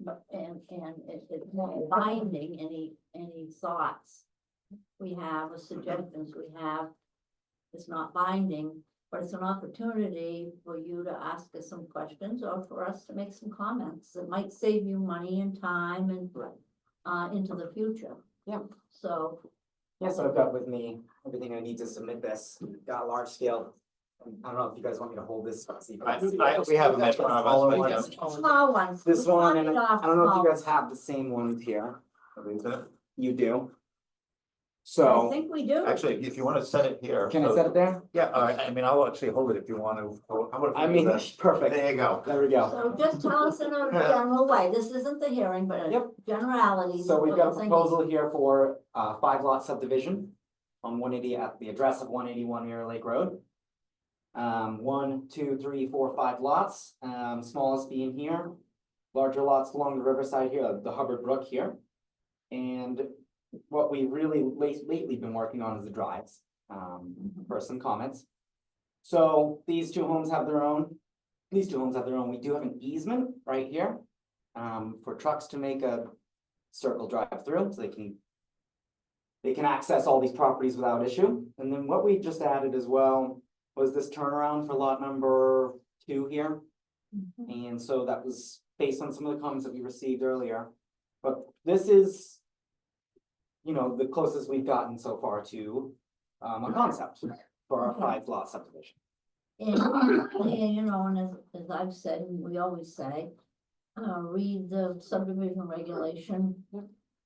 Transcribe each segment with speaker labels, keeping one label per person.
Speaker 1: but- and, and it, it's not binding any, any thoughts. We have, or suggestions we have. It's not binding, but it's an opportunity for you to ask us some questions or for us to make some comments. It might save you money and time and
Speaker 2: Right.
Speaker 1: uh, into the future.
Speaker 2: Yeah.
Speaker 1: So,
Speaker 2: Yeah, so I've got with me everything I need to submit this, got a large scale. I don't know if you guys want me to hold this.
Speaker 3: I- I- we have them in front of us,
Speaker 2: All
Speaker 3: but
Speaker 2: at once.
Speaker 3: yes.
Speaker 1: small ones.
Speaker 2: This
Speaker 1: we
Speaker 2: one,
Speaker 1: knock
Speaker 2: and
Speaker 1: it off
Speaker 2: I don't know if
Speaker 1: small
Speaker 2: you guys have the same ones here, you do.
Speaker 1: ones. I
Speaker 2: So,
Speaker 1: think we do.
Speaker 3: Actually, if you wanna set it here.
Speaker 2: can I
Speaker 3: so-
Speaker 2: set it there?
Speaker 3: Yeah, all right, I mean, I'll actually hold it if you wanna, how about if
Speaker 2: I
Speaker 3: we do
Speaker 2: mean,
Speaker 3: this?
Speaker 2: perfect,
Speaker 3: There you go.
Speaker 2: there we go.
Speaker 1: So just tell us in a general way, this isn't the hearing, but a
Speaker 2: Yep.
Speaker 1: generality.
Speaker 2: So we've got a proposal here for uh five lot subdivision on one eighty at the address of one eighty one Mirror Lake Road. Um, one, two, three, four, five lots, um, smallest being here, larger lots along the riverside here, the Hubbard Brook here. And what we really late lately been working on is the drives, um, for some comments. So these two homes have their own, these two homes have their own, we do have an easement right here. Um, for trucks to make a circle drive through, so they can. They can access all these properties without issue, and then what we just added as well was this turnaround for lot number two here.
Speaker 1: Mhm.
Speaker 2: And so that was based on some of the comments that we received earlier, but this is. You know, the closest we've gotten so far to um
Speaker 1: Mm-hmm.
Speaker 2: a concept for our five lot subdivision.
Speaker 1: And, and, you know, and as, as I've said, and we always say, uh, read the subdivision regulation.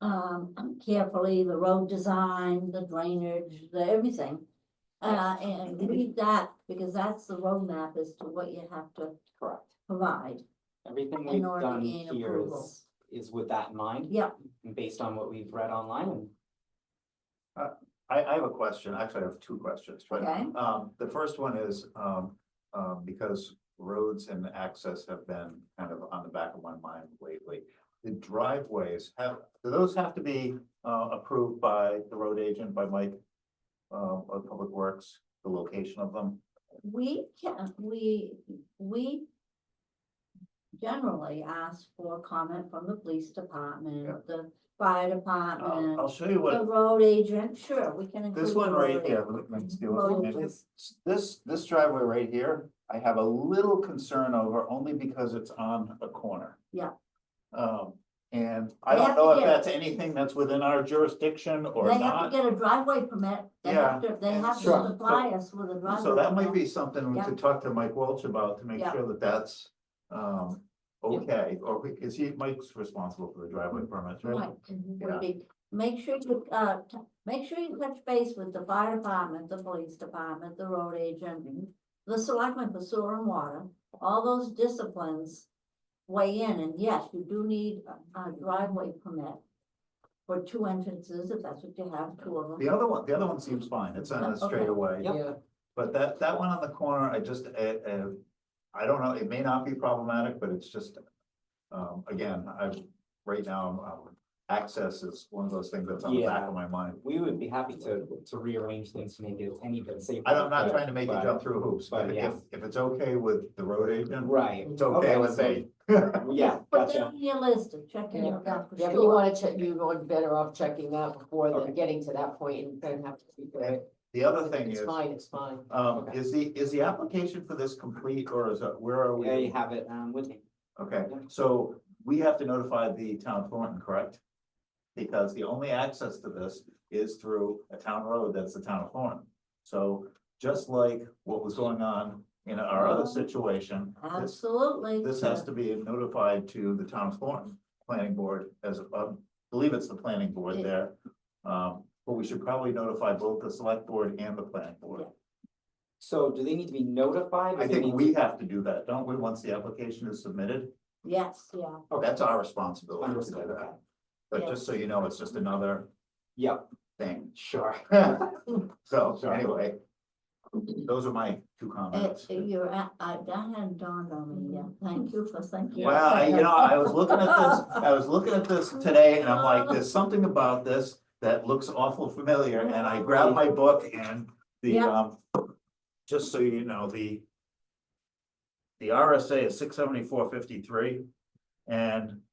Speaker 1: Um, carefully, the road design, the drainage, the everything. Uh, and read that, because that's the roadmap as to what you have to
Speaker 2: Correct.
Speaker 1: provide.
Speaker 2: Everything
Speaker 1: In
Speaker 2: we've
Speaker 1: order to
Speaker 2: done
Speaker 1: gain
Speaker 2: here
Speaker 1: approval.
Speaker 2: is is with that in mind,
Speaker 1: Yep,
Speaker 2: and based on what we've read online and
Speaker 3: I, I have a question, actually, I have two questions, but,
Speaker 1: Okay.
Speaker 3: um, the first one is, um, um, because roads and access have been kind of on the back of my mind lately. The driveways have, do those have to be, uh, approved by the road agent, by Mike, um, of Public Works, the location of them?
Speaker 1: We can, we, we generally ask for comment from the police
Speaker 3: Yeah.
Speaker 1: department, the fire
Speaker 2: Um,
Speaker 3: I'll, I'll
Speaker 2: Oh,
Speaker 1: department,
Speaker 3: show you
Speaker 1: the
Speaker 3: what,
Speaker 1: road agent, sure, we can.
Speaker 3: this
Speaker 1: include
Speaker 3: one
Speaker 1: the
Speaker 3: right
Speaker 1: road
Speaker 3: here,
Speaker 1: agent.
Speaker 3: let me see
Speaker 1: Road
Speaker 3: what it
Speaker 1: agent.
Speaker 3: is. This, this driveway right here, I have a little concern over only because it's on a corner.
Speaker 1: Yeah.
Speaker 3: Um, and I
Speaker 1: They
Speaker 3: don't
Speaker 1: have to
Speaker 3: know if
Speaker 1: get-
Speaker 3: that's anything that's within our jurisdiction or
Speaker 1: They have to
Speaker 3: not,
Speaker 1: get a driveway permit, they have to, they
Speaker 3: and
Speaker 1: have to
Speaker 3: sure,
Speaker 1: supply us with a driveway.
Speaker 3: so that might
Speaker 1: permit.
Speaker 3: be something we
Speaker 1: Yeah.
Speaker 3: could talk to Mike Welch about to make
Speaker 1: Yeah.
Speaker 3: sure that that's. Um,
Speaker 2: Yeah.
Speaker 3: okay, or we- is he, Mike's responsible for the driveway permits, right?
Speaker 1: Right, would
Speaker 3: Yeah.
Speaker 1: be- make sure you, uh, t- make sure you touch base with the fire department, the police department, the road agent.
Speaker 2: Mhm.
Speaker 1: The selectmen for sewer and water, all those disciplines weigh in, and yes, you do need a- a driveway permit. For two entrances, if that's what you have, two of them.
Speaker 3: The other one, the other one seems fine, it's on a
Speaker 1: Okay.
Speaker 3: straightaway.
Speaker 2: Yep.
Speaker 3: But that, that one on the corner, I just, uh, uh, I don't know, it may not be problematic, but it's just, um, again, I, right now, um, access is one of those things that's on the back of my mind.
Speaker 2: we would be happy to to rearrange things to make it any bit safer.
Speaker 3: I'm not trying to make you
Speaker 2: but-
Speaker 3: jump through hoops, but
Speaker 2: But,
Speaker 3: if,
Speaker 2: yeah.
Speaker 3: if it's okay with the road agent,
Speaker 2: Right,
Speaker 3: it's okay
Speaker 2: Okay,
Speaker 3: with
Speaker 2: so-
Speaker 3: me.
Speaker 1: Put
Speaker 2: yeah,
Speaker 1: that
Speaker 2: gotcha.
Speaker 1: on your list of checking
Speaker 4: Yeah.
Speaker 1: it out for
Speaker 4: Yeah, but you
Speaker 1: sure.
Speaker 4: wanna check, you are better off checking that before
Speaker 3: Okay.
Speaker 4: than getting to that point and then have to speak of it.
Speaker 3: The other thing
Speaker 4: It's
Speaker 3: is,
Speaker 4: fine, it's fine.
Speaker 3: um, is the, is the application for this complete or is it, where are
Speaker 2: Yeah, you
Speaker 3: we?
Speaker 2: have it um with me.
Speaker 3: Okay, so we have to notify the town of Thornton, correct? Because the only access to this is through a town road, that's the town of Thornton. So just like what was going on in our other situation, this,
Speaker 1: Absolutely.
Speaker 3: this has to be notified to the town of Thornton Planning Board as, I believe it's the planning board there. Um, but we should probably notify both the select board and the planning board.
Speaker 2: So do they need to be notified? or
Speaker 3: I
Speaker 2: they
Speaker 3: think
Speaker 2: need
Speaker 3: we have to do that, don't we? Once the application is submitted,
Speaker 1: Yes, yeah.
Speaker 2: Okay.
Speaker 3: that's our responsibility to do
Speaker 2: Understood, okay.
Speaker 3: that. But just so you know, it's just another
Speaker 2: Yep,
Speaker 3: thing.
Speaker 2: sure.
Speaker 3: So,
Speaker 2: Sorry.
Speaker 3: anyway. Those are my two
Speaker 1: Uh,
Speaker 3: comments.
Speaker 1: You're, at- I, that hadn't dawned on me yet. Thank you for thinking.
Speaker 3: Well, I- you know, I was looking at this, I was looking at this today and I'm like, there's something about this that looks awful familiar and I grabbed my book and the,
Speaker 1: Yeah.
Speaker 3: um. Just so you know, the. The RSA is six seventy-four fifty-three and